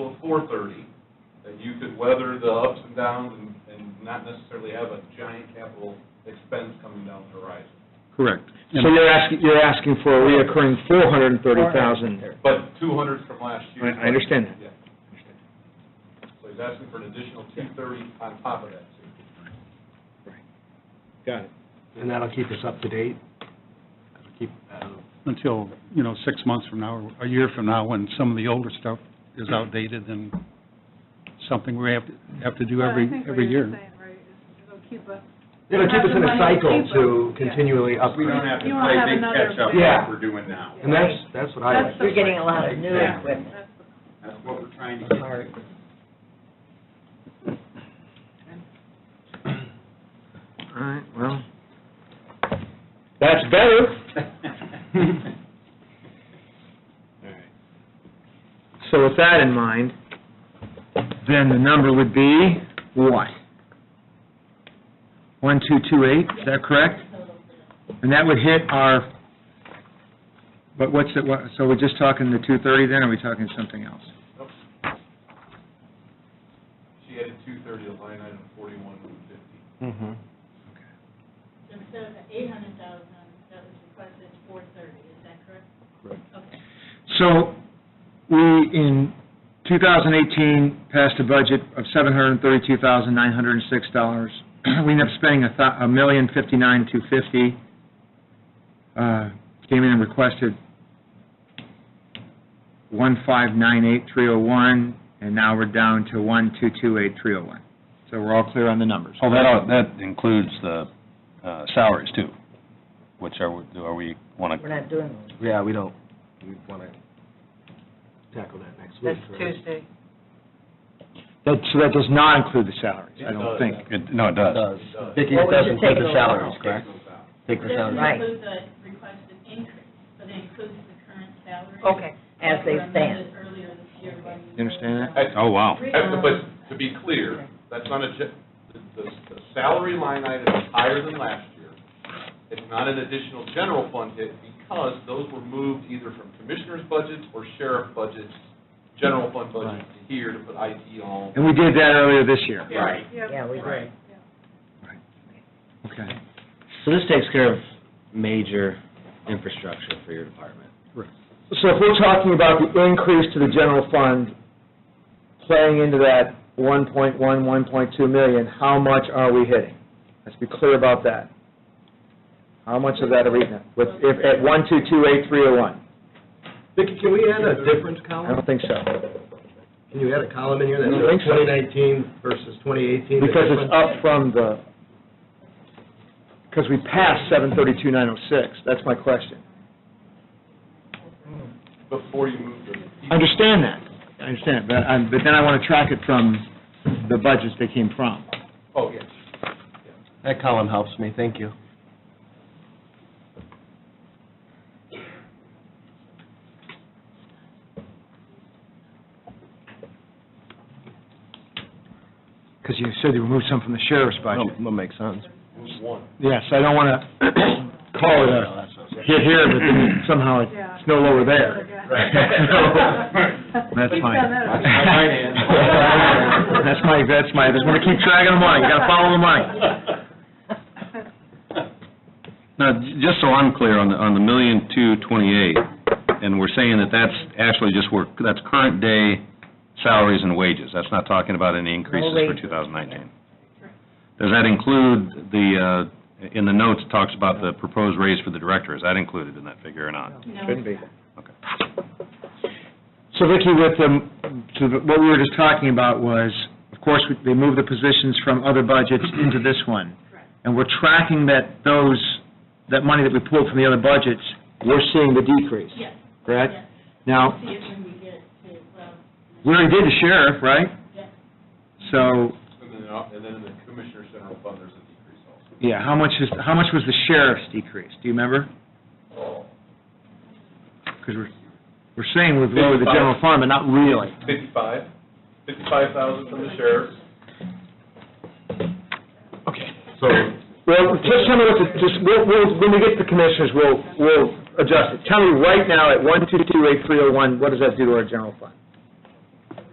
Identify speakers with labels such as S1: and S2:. S1: till four thirty, that you could weather the ups and downs and, and not necessarily have a giant capital expense coming down the horizon.
S2: Correct.
S3: So you're asking, you're asking for a reoccurring four hundred and thirty thousand.
S1: But two hundreds from last year.
S3: I- I understand that.
S1: Yeah. So he's asking for an additional two thirty on top of that, too.
S3: Got it.
S4: And that'll keep us up to date? That'll keep, uh,
S2: Until, you know, six months from now, or a year from now, when some of the older stuff is outdated and something we have to, have to do
S5: But I
S2: every,
S5: think what
S2: every
S5: you're
S2: year.
S5: saying, right, is it'll keep us-
S4: it'll keep us in a cycle to
S5: Yeah.
S4: continually
S6: We don't
S4: upgrade.
S6: have to
S5: You wanna
S6: play
S5: have
S6: big
S5: another
S6: catch-up
S4: big-
S6: like we're doing now.
S4: And that's, that's what I
S5: That's
S4: like.
S5: the-
S7: You're getting a lot of new
S6: Yeah.
S7: equipment.
S5: that's the-
S6: That's what we're trying to
S7: It's
S6: get.
S7: hard.
S3: All right, well, that's better. So with that in mind, then the number would be what? One, two, two, eight, is that correct? And that would hit our, but what's it, what- so we're just talking the two thirty then, or are we talking something else?
S1: She added two thirty to line item forty-one fifty.
S3: Mm-hmm.
S8: So instead of the eight hundred thousand that was requested, it's four thirty, is that correct? Correct. Okay.
S3: So, we, in 2018, passed a budget of $732,906. We ended up spending a thou- a million fifty-nine, two fifty. Uh, Came in and requested 1598301, and now we're down to 1228301. So we're all clear on the numbers.
S9: Oh, that, all- that includes the uh, salaries too, which are, we- are we, want
S7: We're
S9: to,
S7: not doing those.
S4: Yeah, we don't, we want to tackle that next week.
S7: That's
S4: right?
S7: Tuesday.
S3: That- So that does not include the salaries, I
S1: It does.
S3: don't think.
S9: no, it does.
S7: Vicki, it doesn't take the salaries,
S6: correct?
S8: Take
S7: the sound. Right.
S8: Doesn't include the requested increase, but it includes the current salary.
S7: Okay, as they stand.
S8: Earlier this year. when we
S3: You understand
S8: were-
S9: Oh, wow.
S1: Uh, But to be clear, that's not a, ju- the, the the salary line item is higher than last year. It's not an additional general fund hit because those were moved either from commissioners' budgets or sheriff budgets, general fund budgets to here to put IT on.
S3: And we did that earlier this year.
S6: Right.
S5: Yep.
S7: Yeah, we
S5: Right.
S7: did.
S3: Okay.
S10: So this takes care of major infrastructure for your department.
S3: So if we're talking about the increase to the general fund, playing into that 1.1, 1.2 million, how much are we hitting? Let's be clear about that. How much of that are we hitting with, if, at 1228301?
S4: Vicki, can we add a difference
S3: I
S4: column?
S3: don't think so,
S4: Can you add a column in here that
S3: I don't think
S4: says
S3: so.
S4: 2019 versus 2018?
S3: because it's up from the, because we passed 732906, that's my question.
S1: Before you move the.
S3: I understand that, I understand, but, I'm- but then I want to track it from the budgets they came from.
S1: Oh, yes.
S10: That column helps me, thank you.
S3: Because you said you removed some from the sheriff's budget.
S10: That makes sense.
S1: Move one.
S3: Yes, I don't want to call it a hit here, but then somehow
S5: Yeah.
S3: it's no lower there. That's
S5: We
S3: fine.
S5: found that out.
S1: That's my finance.
S3: That's my, that's my, I just want to keep track of the money, you got to follow the money.
S9: Now, j- just so I'm clear, on the, on the million two twenty-eight, and we're saying that that's actually just work, that's current day salaries and wages, that's not talking about any increases for
S7: wages.
S9: two thousand nineteen. Does that include the, uh, in the notes, it talks about the proposed raise for the director, is that included in that figure or not?
S8: No,
S3: Shouldn't be.
S9: Okay.
S3: So Vicki, with the, to the- what we were just talking about was, of course, we- they moved the positions from other budgets into this one.
S8: Correct.
S3: And we're tracking that those, that money that we pulled from the other budgets, we're seeing the decrease,
S8: Yes,
S3: correct?
S8: yes.
S3: Now,
S8: See it when we get to, well,
S3: we already did the sheriff, right?
S8: yes.
S3: So,
S1: And then, uh, and then in the commissioner's general fund, there's a decrease also.
S3: yeah, how much is, how much was the sheriff's decrease? Do you remember? Because we're, we're saying we've lowered the general fund, but not really.
S1: Fifty-five, fifty-five thousand from the sheriff's.
S6: So,
S3: Well, just tell me what, the- just, we'll, we'll, when we get to the commissioners, we'll, we'll adjust it. Tell me right now at one, two, two, eight, three, oh, one, what does that do to our general fund?